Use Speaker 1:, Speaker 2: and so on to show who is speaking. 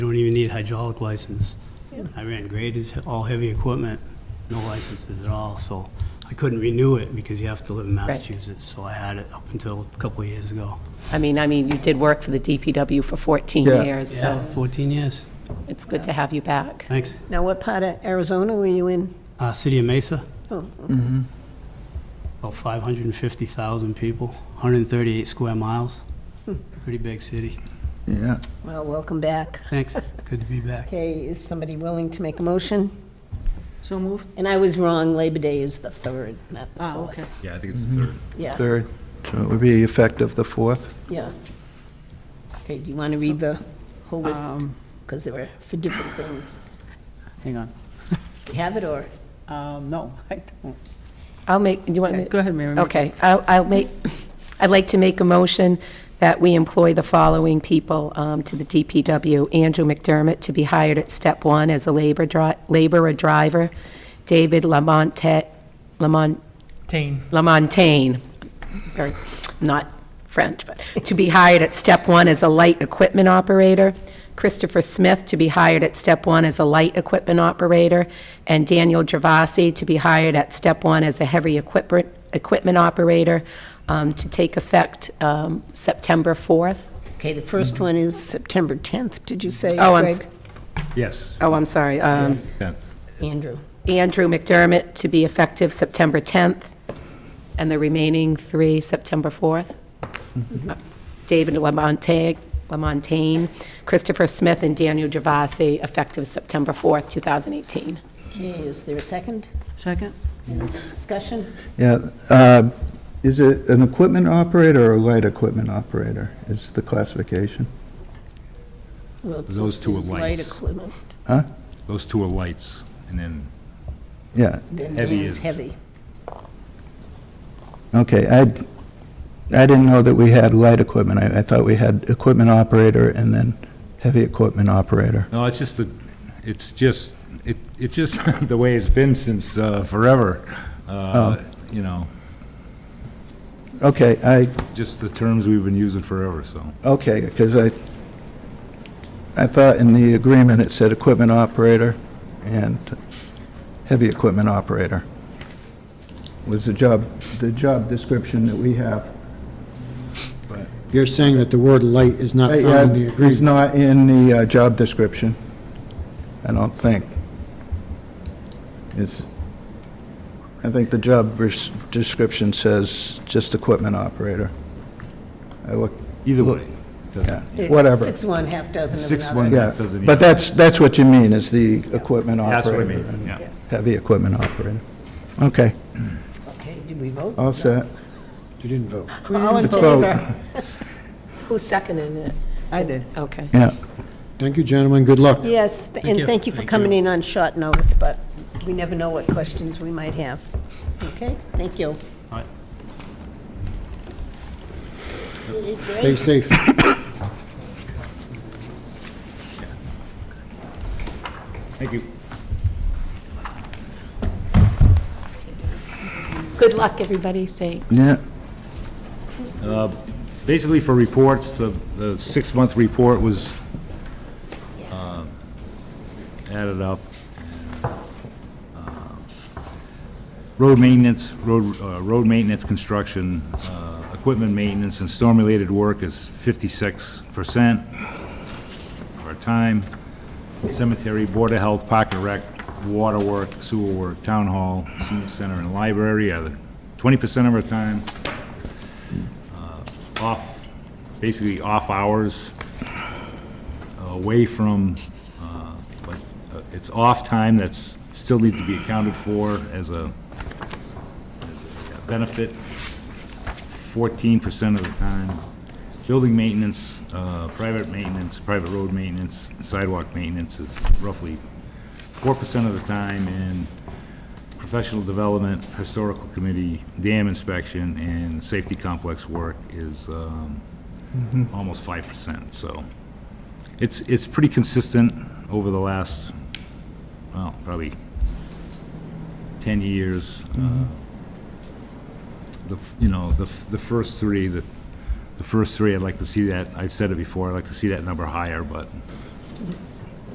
Speaker 1: You don't even need a hydraulic license. I ran graders, all heavy equipment, no licenses at all, so I couldn't renew it because you have to live in Massachusetts, so I had it up until a couple of years ago.
Speaker 2: I mean, I mean, you did work for the DPW for 14
Speaker 3: Yeah.
Speaker 2: years,
Speaker 1: Yeah,
Speaker 2: so
Speaker 1: 14 years,
Speaker 2: it's good to have you back.
Speaker 1: thanks.
Speaker 4: Now, what part of Arizona were you in?
Speaker 1: Uh, City of Mesa,
Speaker 4: Oh,
Speaker 1: about 550,000 people, 138 square miles, pretty big city.
Speaker 3: Yeah.
Speaker 4: well, welcome back.
Speaker 1: Thanks, good to be back.
Speaker 4: Okay, is somebody willing to make a motion?
Speaker 5: So moved.
Speaker 4: And I was wrong, Labor Day is the 3rd, not the 4th.
Speaker 5: Oh, okay.
Speaker 6: Yeah, I think it's the third.
Speaker 4: Yeah,
Speaker 3: Third, so it would be effective the 4th.
Speaker 4: yeah. Okay, do you want to read the whole list?
Speaker 5: Um,
Speaker 4: Because they were for different things.
Speaker 5: Hang on.
Speaker 4: You have it, or?
Speaker 5: Um, No, I don't. Oh.
Speaker 2: I'll make, you want me?
Speaker 5: Okay, Go ahead, Mary.
Speaker 2: Okay, I'll I'll make, I'd like to make a motion that we employ the following people um, to the DPW. Andrew McDermott to be hired at step one as a labor dri, laborer driver. David Lamontet, Lamont. Lamontaine, or not French, but to be hired at step one as a light equipment operator. Christopher Smith to be hired at step one as a light equipment operator, and Daniel Gervasi to be hired at step one as a heavy equipment, equipment operator um, to take effect um, September 4th.
Speaker 4: Okay, the first one is September 10th, did you say,
Speaker 2: Oh, I'm s-
Speaker 4: Greg?
Speaker 6: Yes.
Speaker 2: Oh, I'm sorry. um,
Speaker 6: Tenth.
Speaker 4: Andrew.
Speaker 2: Andrew McDermott to be effective September 10th, and the remaining three, September 4th. David Lamontagne, Lamontagne, Christopher Smith, and Daniel Gervasi, effective September 4th, 2018.
Speaker 4: Okay, is there a second?
Speaker 5: Second?
Speaker 4: Discussion?
Speaker 3: Yeah, uh, is it an equipment operator or a light equipment operator is the classification?
Speaker 4: Well, it's
Speaker 6: Those
Speaker 4: listed
Speaker 6: two are
Speaker 4: as light
Speaker 6: lights.
Speaker 4: equipment.
Speaker 3: Huh?
Speaker 6: Those two are lights, and then
Speaker 3: Yeah,
Speaker 4: Then
Speaker 6: Heavy
Speaker 4: Dan's
Speaker 6: is-
Speaker 4: heavy.
Speaker 3: okay, I, I didn't know that we had light equipment. I, I thought we had equipment operator and then heavy equipment operator.
Speaker 6: no, it's just the, it's just it it's just the way it's been since uh, forever. Uh,
Speaker 3: Oh.
Speaker 6: You know,
Speaker 3: Okay, I,
Speaker 6: just the terms we've been using forever. So
Speaker 3: okay, because I, I thought in the agreement it said equipment operator and heavy equipment operator. Was the job, the job description that we have.
Speaker 7: You're saying that the word light is not found in the
Speaker 3: He's uh,
Speaker 7: agreement?
Speaker 3: not in the uh, job description, I don't think. It's, I think the job res- description says just equipment operator. I look,
Speaker 6: either
Speaker 3: Look,
Speaker 6: way, it doesn't,
Speaker 3: yeah,
Speaker 4: It's
Speaker 3: whatever,
Speaker 4: Six one, half dozen of another.
Speaker 6: six one
Speaker 3: yeah.
Speaker 6: doesn't. even-
Speaker 3: But that's, that's what you mean, is the equipment
Speaker 6: That's what I
Speaker 3: operator.
Speaker 6: mean.
Speaker 3: and
Speaker 6: Yeah.
Speaker 3: Heavy equipment operator. Okay,
Speaker 4: Okay, did we vote?
Speaker 3: all set.
Speaker 7: You didn't vote.
Speaker 4: All in
Speaker 3: Let's vote.
Speaker 4: favor?
Speaker 2: Who seconded it?
Speaker 5: I did.
Speaker 2: Okay.
Speaker 3: Yeah,
Speaker 7: Thank you, gentlemen, good luck.
Speaker 4: Yes, th- and
Speaker 1: you.
Speaker 4: thank you for
Speaker 1: Thank
Speaker 4: coming
Speaker 1: you.
Speaker 4: in on short notice, but we never know what questions we might have. Okay, thank you.
Speaker 1: All right.
Speaker 7: Stay safe.
Speaker 6: Thank you.
Speaker 2: Good luck, everybody. Thanks.
Speaker 3: yeah,
Speaker 6: Basically, for reports, the, the six-month report was um, added up. Uh, Road maintenance, road, uh, road maintenance, construction, uh, equipment maintenance, and storm-related work is fifty-six percent of our time. Cemetery, Board of Health, Park and Rec, water work, sewer work, town hall, senior center, and library are twenty percent of our time off, basically off hours, away from, uh, like, uh, it's off time that's, still needs to be accounted for as a as a benefit, fourteen percent of the time. Building maintenance, uh, private maintenance, private road maintenance, sidewalk maintenance is roughly four percent of the time, and professional development, historical committee, dam inspection, and safety complex work is um, almost five percent, so it's, it's pretty consistent over the last, well, probably ten years. Uh, The, f- you know, the, f- the first three, the, the first three, I'd like to see that, I've said it before, I'd like to see that number higher, but